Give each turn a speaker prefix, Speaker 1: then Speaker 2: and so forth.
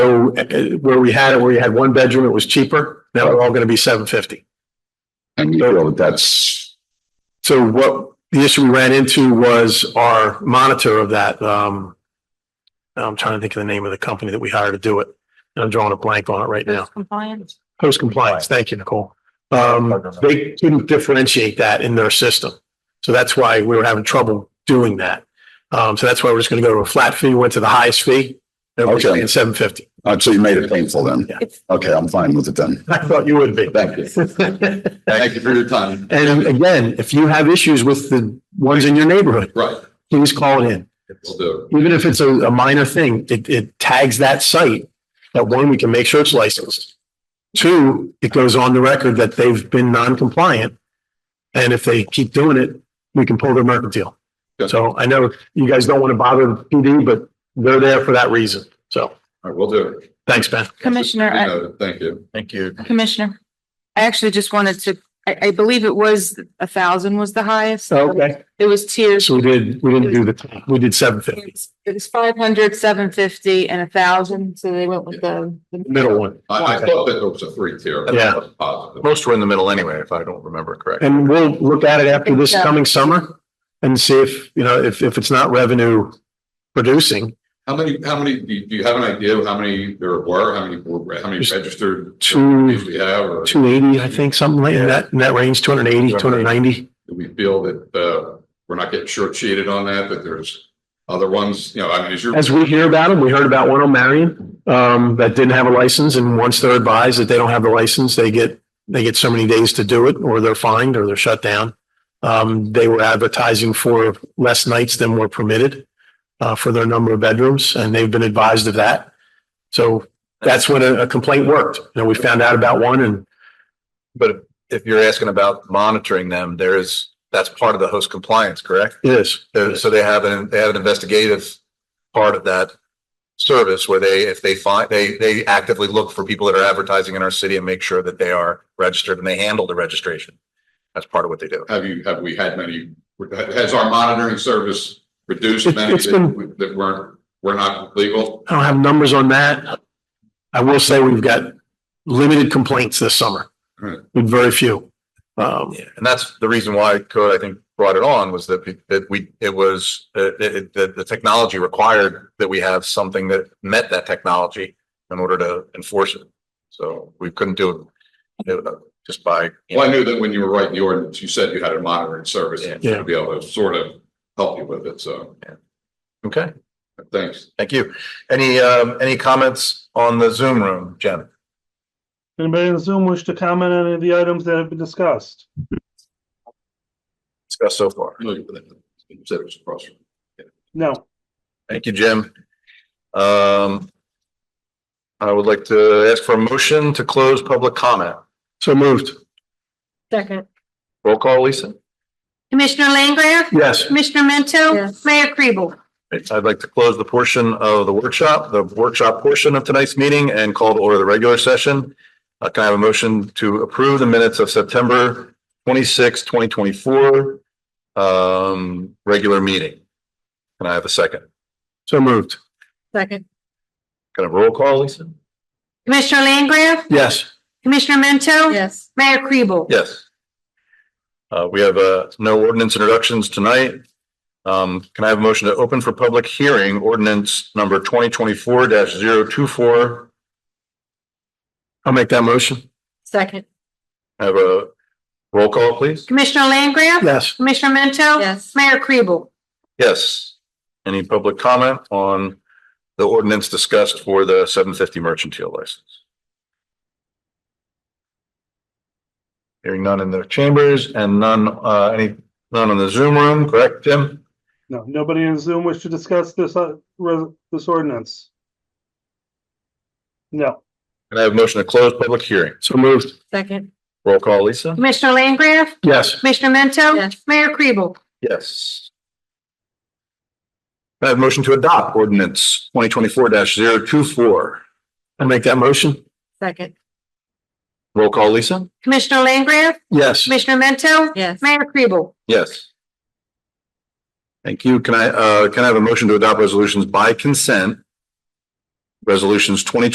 Speaker 1: So uh, where we had it, where you had one bedroom, it was cheaper. Now they're all going to be seven fifty.
Speaker 2: And you feel that that's,
Speaker 1: So what the issue we ran into was our monitor of that, um, I'm trying to think of the name of the company that we hired to do it. And I'm drawing a blank on it right now.
Speaker 3: Compliance.
Speaker 1: Post compliance. Thank you, Nicole. Um, they couldn't differentiate that in their system. So that's why we were having trouble doing that. Um, so that's why we're just going to go to a flat fee, went to the highest fee. Everybody's
Speaker 2: Okay.
Speaker 1: paying seven fifty.
Speaker 2: uh, so you made it painful then.
Speaker 1: Yeah.
Speaker 3: It's-
Speaker 2: Okay, I'm fine with it then.
Speaker 1: I thought you would be.
Speaker 2: Thank you. Thank you for your time.
Speaker 1: And again, if you have issues with the ones in your neighborhood,
Speaker 2: Right,
Speaker 1: please call it in.
Speaker 2: we'll do
Speaker 1: Even if it's a, a minor thing, it, it tags that site. That one, we can make sure it's licensed. Two, it goes on the record that they've been non-compliant. And if they keep doing it, we can pull their mercantile.
Speaker 2: Good.
Speaker 1: So I know you guys don't want to bother the PD, but they're there for that reason. So,
Speaker 2: All right, we'll do it.
Speaker 1: thanks, Ben.
Speaker 3: Commissioner, I-
Speaker 4: Uh,
Speaker 2: Thank you. Thank you.
Speaker 3: Commissioner, I actually just wanted to, I, I believe it was a thousand was the highest.
Speaker 1: Oh.
Speaker 3: It was tiers.
Speaker 1: So we did, we didn't do the, top. we did seven fifty,
Speaker 3: It was five hundred, seven fifty and a thousand. So they went with the. the-
Speaker 1: middle one.
Speaker 4: I, I thought that it was a three tier.
Speaker 1: Yeah.
Speaker 4: Positive.
Speaker 2: Most were in the middle anyway, if I don't remember correctly.
Speaker 1: And we'll look at it after this
Speaker 3: Yeah.
Speaker 1: coming summer and see if, you know, if, if it's not revenue producing.
Speaker 4: How many, how many, do you, do you have an idea of how many there were, how many, were- how many
Speaker 1: Just
Speaker 4: registered?
Speaker 1: Two,
Speaker 4: employees We have, or do
Speaker 1: two eighty, I think, something like in that, in that range, 280, 290.
Speaker 4: we feel that, uh, we're not getting shortchanged on that, that there's other ones, you know, I mean, is your.
Speaker 1: As we hear about them, we heard about one on Marion, um, that didn't have a license and once they're advised that they don't have the license, they get, they get so many days to do it or they're fined or they're shut down. Um, they were advertising for less nights than were permitted, uh, for their number of bedrooms and they've been advised of that. So that's when a a complaint worked. You know, we found out about one and
Speaker 5: But if you're asking about monitoring them, there is, that's part of the host compliance, correct?
Speaker 1: it is.
Speaker 5: There- So they have an, they have an investigative part of that service where they, if they find, they, they actively look for people that are advertising in our city and make sure that they are registered and they handle the registration. That's part of what they do.
Speaker 4: Have you, have we had many, has our monitoring service reduced
Speaker 1: It's-
Speaker 4: many
Speaker 1: it's been-
Speaker 4: that, that weren't, were not legal?
Speaker 1: I don't have numbers on that. I will say we've got limited complaints this summer.
Speaker 4: Right.
Speaker 1: With very few. Um,
Speaker 5: Yeah, and that's the reason why code, I think, brought it on was that, we- that we, it was, uh, it, the, the technology required that we have something that met that technology in order to enforce it. So we couldn't do it uh, just by, you
Speaker 4: Well, I
Speaker 5: know,
Speaker 4: knew that when you were writing the ordinance, you said you had a monitoring service
Speaker 5: Yeah.
Speaker 4: to be able to sort of help you with it, so,
Speaker 5: okay,
Speaker 4: thanks.
Speaker 5: thank you. Any, um, any comments on the Zoom room, Jen?
Speaker 6: Anybody in Zoom wish to comment on any of the items that have been discussed?
Speaker 5: Discussed so far.
Speaker 4: Said it was across from-
Speaker 6: No.
Speaker 5: Thank you, Jim. Um, I would like to ask for a motion to close public comment.
Speaker 1: so moved.
Speaker 3: Second.
Speaker 5: Roll call, Lisa.
Speaker 7: Commissioner Langgraf?
Speaker 1: Yes.
Speaker 7: Commissioner Mento?
Speaker 3: Yes.
Speaker 7: Mayor Kribel?
Speaker 5: I'd like to close the portion of the workshop, the workshop portion of tonight's meeting and call to order the regular session. Uh, can I have a motion to approve the minutes of September 26, 2024? Um, regular meeting. Can I have a second?
Speaker 1: So moved.
Speaker 3: Second.
Speaker 5: Can I have a roll call, Lisa?
Speaker 7: Commissioner Langgraf?
Speaker 1: Yes.
Speaker 7: Commissioner Mento?
Speaker 3: Yes.
Speaker 7: Mayor Kribel?
Speaker 5: Yes. Uh, we have, uh, no ordinance introductions tonight. Um, can I have a motion to open for public hearing ordinance number twenty twenty-four 24
Speaker 1: I'll make that motion.
Speaker 3: Second.
Speaker 5: Have a roll call, please?
Speaker 7: Commissioner Langgraf?
Speaker 1: Yes.
Speaker 7: Commissioner Mento?
Speaker 3: Yes.
Speaker 7: Mayor Kribel?
Speaker 5: Yes. Any public comment on the ordinance discussed for the seven fifty merchantile license? Hearing none in the chambers and none, uh, any, none in the Zoom room, correct, Tim?
Speaker 6: No, nobody in Zoom wish to discuss this, uh, res- this ordinance? No,
Speaker 5: And I have a motion to close public hearing.
Speaker 1: So moved.
Speaker 3: Second.
Speaker 5: Roll call, Lisa?
Speaker 7: Commissioner Langgraf?
Speaker 1: Yes.
Speaker 7: Commissioner Mento?
Speaker 3: Yes.
Speaker 7: Mayor Kribel?
Speaker 5: Yes. I have a motion to adopt ordinance twenty twenty-four 24
Speaker 1: I'll make that motion.
Speaker 3: Second.
Speaker 5: Roll call, Lisa?
Speaker 7: Commissioner Langgraf?
Speaker 1: Yes.
Speaker 7: Commissioner Mento?
Speaker 3: Yes.
Speaker 7: Mayor Kribel?
Speaker 5: Yes. Thank you. Can I, uh, can I have a motion to adopt resolutions by consent? Resolutions twenty